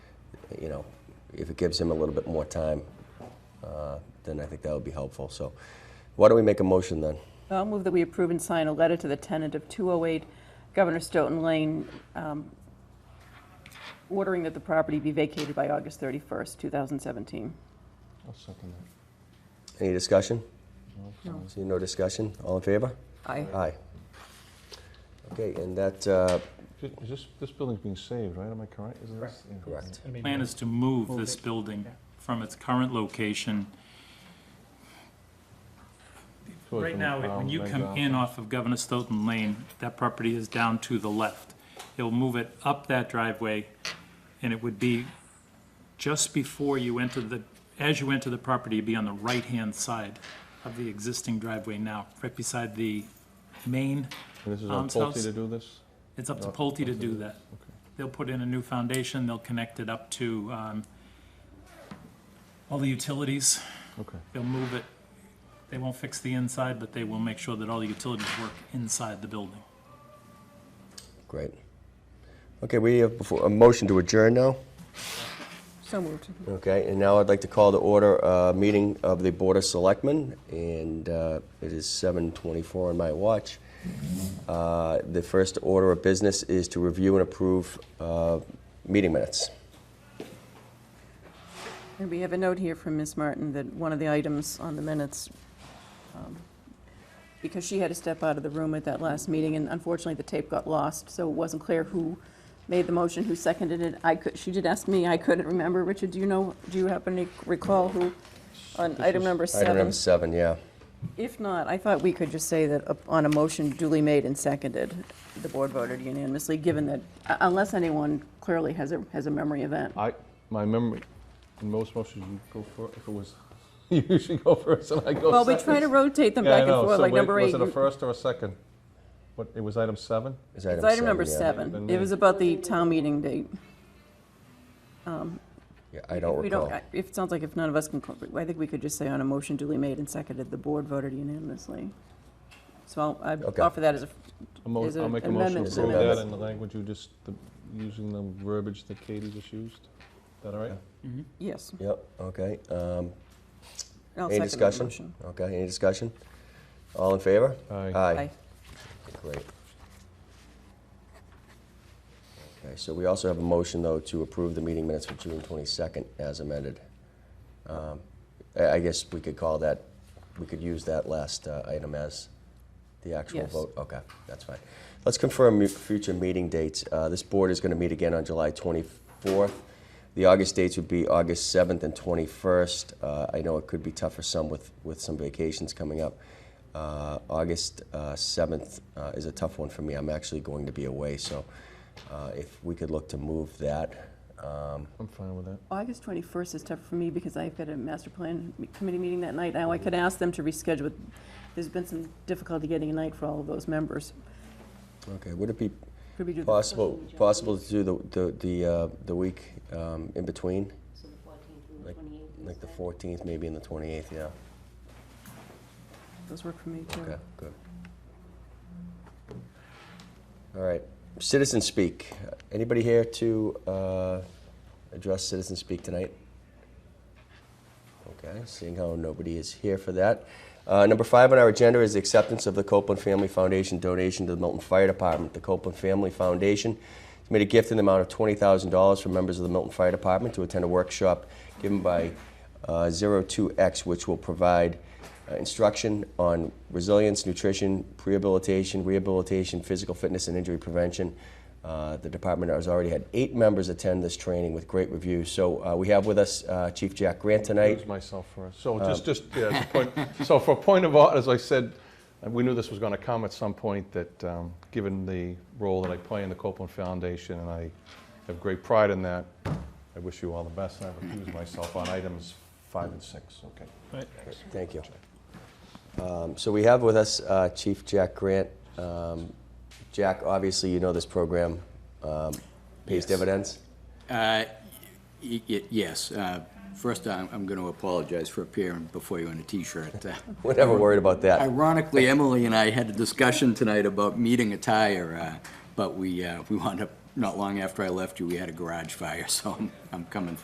you know, if it gives him a little bit more time, uh, then I think that would be helpful. So why don't we make a motion then? I'll move that we approve and sign a letter to the tenant of 208 Governor Stoughton Lane um, ordering that the property be vacated by August 31st, 2017. I'll second that. Any discussion? No. See no discussion? All in favor? Aye. Aye. Okay, and that, uh, Ju- Is this, this building's being saved, right? Am I correct? Is this- yeah. correct. Plan is to move this building from its current location. Towards Right the now, when town, you then come down. in off of Governor Stoughton Lane, that property is down to the left. He'll move it up that driveway, and it would be just before you enter the, as you enter the property, it'd be on the right-hand side of the existing driveway now, right beside the main. And this is on Alms Pulte to house. do this? It's up to Oh, Pulte to okay. do that. Okay. They'll put in a new foundation, they'll connect it up to um, all the utilities. Okay. They'll move it, they won't fix the inside, but they will make sure that all the utilities work inside the building. Great. Okay, we have before, a motion to adjourn now. So moved. Okay, and now I'd like to call to order a meeting of the Board of Selectmen, and uh, it is 7:24 on my watch. Uh, The first order of business is to review and approve uh, meeting minutes. And we have a note here from Ms. Martin that one of the items on the minutes, um, because she had to step out of the room at that last meeting, and unfortunately, the tape got lost, so it wasn't clear who made the motion, who seconded it. I could, she did ask me, I couldn't remember. Richard, do you know, do you happen to recall who, on item number seven? Item number seven, yeah. If not, I thought we could just say that up- on a motion duly made and seconded, the board voted unanimously, given that, u- unless anyone clearly has a, has a memory event. I, my memory, in most motions, you go first, if it was, you usually go first and I go second. Well, we try to rotate them Oh, Yeah, I back and know. forth, So like wait, number eight. Was it a you- first or a second? What, it was item seven? It's It's item number yeah. seven. Then It was about the town meeting date. Yeah, I don't We don't, recall. I- if, it sounds like if none of us can, co- I think we could just say on a motion duly made and seconded, the board voted unanimously. So I'll, I Okay. offer that as a, A mo- There's I'll an make a motion amendment to to approve the that in minutes. the language you just, the- using the verbiage that Katie just used. Is that all right? yes, Yep, okay. um, I'll Any second the discussion? motion. Okay, any discussion? All in favor? Aye. Aye. Aye. Great. Okay, so we also have a motion, though, to approve the meeting minutes for June 22nd as amended. Um, I I guess we could call that, we could use that last uh, item as the actual Yes. vote? Okay, that's fine. Let's confirm mu- future meeting dates. Uh, This board is going to meet again on July 24th. The August dates would be August 7th and 21st. Uh, I know it could be tough for some with, with some vacations coming up. Uh, August uh, 7th uh, is a tough one for me. I'm actually going to be away, so uh, if we could look to move that. um, I'm fine with that. August 21st is tough for me because I've got a master plan m- committee meeting that night. Now, I could ask them to reschedule. it. There's been some difficulty getting a night for all of those members. Okay, would it be Could we do the possible, possible to do the, the, the uh, the week um, in between? So the fourteenth and the Like- twenty-eighth Like the 14th, maybe, and the 28th, yeah. Those work for me, too. Okay, good. All right, citizen speak. Anybody here to uh, address citizen speak tonight? Okay, seeing how nobody is here for that. Uh, Number five on our agenda is the acceptance of the Copeland Family Foundation donation to the Milton Fire Department. The Copeland Family Foundation has made a gift in the amount of $20,000 for members of the Milton Fire Department to attend a workshop given by uh, 02X, which will provide uh, instruction on resilience, nutrition, rehabilitation, rehabilitation, physical fitness, and injury prevention. Uh, the department has already had eight members attend this training with great reviews. So uh, we have with us uh, Chief Jack Grant tonight. Excuse myself first. So just, just, yeah, as a point- so for a point of order, as I said, uh, we knew this was going to come at some point, that um, given the role that I play in the Copeland Foundation, and I have great pride in that, I wish you all the best, and I recuse myself on items five and six, okay? Thank you. Um, So we have with us uh, Chief Jack Grant. Um, Jack, obviously, you know this program um, pays Yes. dividends. Uh, y- y- Yes. uh, First, I'm I'm going to apologize for appearing before you in a T-shirt. Uh, We're never worried about that. Ironically, Emily and I had a discussion tonight about meeting attire, uh, but we uh, we wound up, not long after I left you, we had a garage fire, so I'm- I'm coming